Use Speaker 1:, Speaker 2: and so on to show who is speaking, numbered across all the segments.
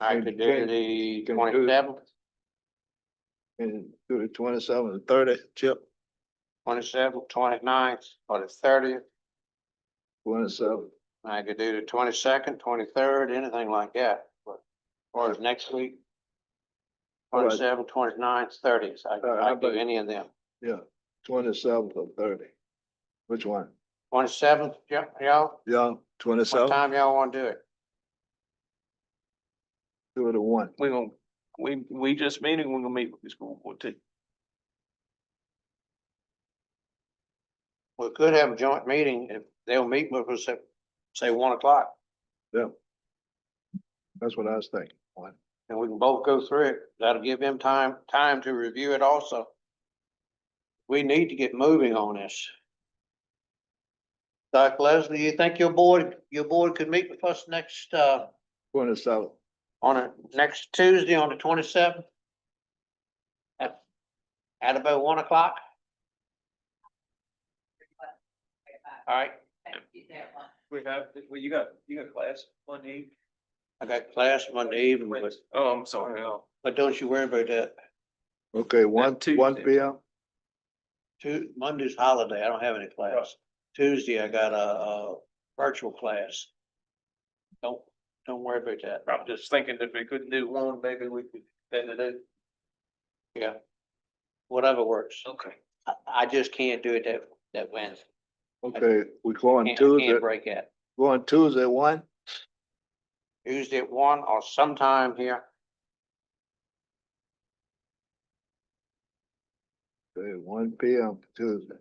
Speaker 1: I could do
Speaker 2: Good.
Speaker 1: the
Speaker 2: Can we do-
Speaker 1: twenty-seventh,
Speaker 2: And do the twenty-seven and thirty, Chip,
Speaker 1: twenty-seventh, twenty-ninth, or the thirtieth.
Speaker 2: twenty-seven.
Speaker 1: I could do the twenty-second, twenty-third, anything like that, but, or is next week.
Speaker 2: All right.
Speaker 1: Twenty-seventh, twenty-ninth, thirtieth, I,
Speaker 2: right,
Speaker 3: Uh,
Speaker 1: I
Speaker 2: how
Speaker 1: could do
Speaker 2: about-
Speaker 1: any of them.
Speaker 2: Yeah, twenty-seventh or thirty. Which one?
Speaker 1: Twenty-seventh, y'all,
Speaker 2: Yeah,
Speaker 1: what
Speaker 2: twenty-seven,
Speaker 1: time y'all wanna do it?
Speaker 2: two to one.
Speaker 3: We gonna, we, we just meeting, we're gonna meet with the school board too.
Speaker 1: We could have a joint meeting, if they'll meet with us at, say, one o'clock,
Speaker 2: That's what I was thinking. One.
Speaker 1: and we can both go through it, that'll give them time, time to review it also. We need to get moving on this. Doc Leslie, you think your board, your board could meet with us next, uh,
Speaker 2: Twenty-seven.
Speaker 1: on a, next Tuesday on the twenty-seventh? At, at about one o'clock, all right,
Speaker 3: We have, well, you got, you got class Monday.
Speaker 1: I got class Monday evening, but,
Speaker 3: Oh, I'm sorry, no.
Speaker 1: but don't you worry about that.
Speaker 2: Okay, one, one
Speaker 3: Tuesday.
Speaker 2: P M.
Speaker 1: Tu- Monday's holiday, I don't have any class. Tuesday, I got a, a virtual class. Don't, don't worry about that.
Speaker 3: I'm just thinking if we couldn't do one, maybe we could, then it is.
Speaker 1: Yeah. Whatever works.
Speaker 3: Okay.
Speaker 1: I, I just can't do it that, that Wednesday.
Speaker 2: Okay, we
Speaker 1: I
Speaker 2: going
Speaker 1: Can't, I
Speaker 2: Tuesday,
Speaker 1: can't break that.
Speaker 2: going Tuesday, one?
Speaker 1: Tuesday at one or sometime here.
Speaker 2: Okay, one P M Tuesday.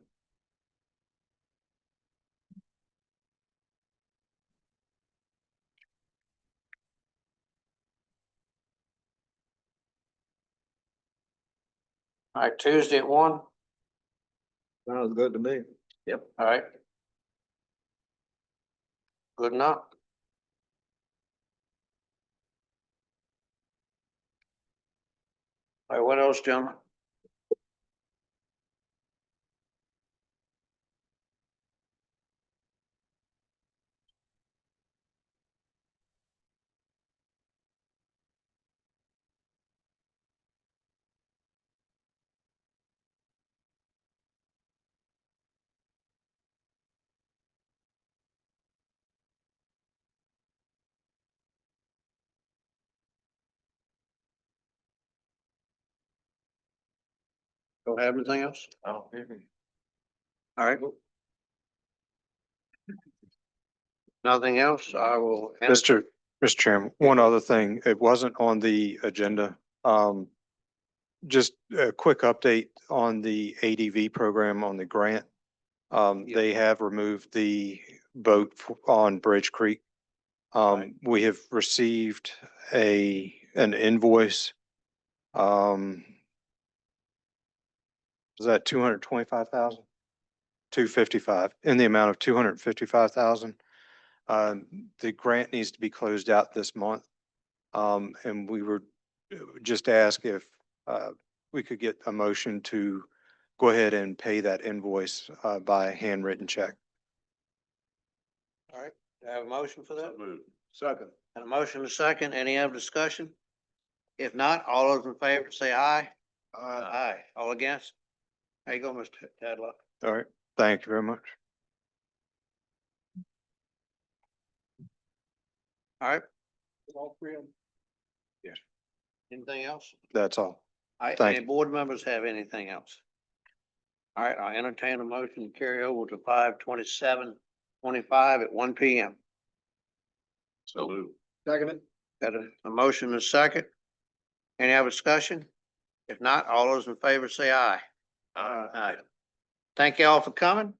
Speaker 1: All right, Tuesday at one,
Speaker 2: Sounds good to me.
Speaker 1: all right. Good enough. All right, what else, gentlemen? Don't have anything else?
Speaker 3: Oh,
Speaker 1: All right. Nothing else, I will. enter-
Speaker 4: Mr. Mr. Chairman, one other thing, it wasn't on the agenda. Um, just a quick update on the ADV program on the grant. Um,
Speaker 1: Yeah.
Speaker 4: they have removed the boat f- on Bridge Creek. Um, we have received a, an invoice. Um, is that two hundred twenty-five thousand? Two fifty-five, in the amount of two hundred fifty-five thousand. Um, the grant needs to be closed out this month. Um, and we were uh, just asked if, uh, we could get a motion to go ahead and pay that invoice, uh, by handwritten check.
Speaker 1: All right, do I have a motion for that?
Speaker 2: Second.
Speaker 1: And a motion to second, any other discussion? If not, all those in favor say aye. Aye. All against? There you go, Mr. Tadlock.
Speaker 4: All right, thank you very much.
Speaker 1: All right,
Speaker 3: All three of them.
Speaker 1: anything else?
Speaker 4: That's all.
Speaker 1: All right,
Speaker 4: Thank
Speaker 1: any
Speaker 4: you.
Speaker 1: board members have anything else? All right, I entertain a motion to carry over to five twenty-seven, twenty-five at one P M.
Speaker 3: Salute.
Speaker 2: Second.
Speaker 1: Got a, a motion and a second. Any other discussion? If not, all those in favor say aye.
Speaker 3: All right.
Speaker 1: Aye. Thank you all for coming.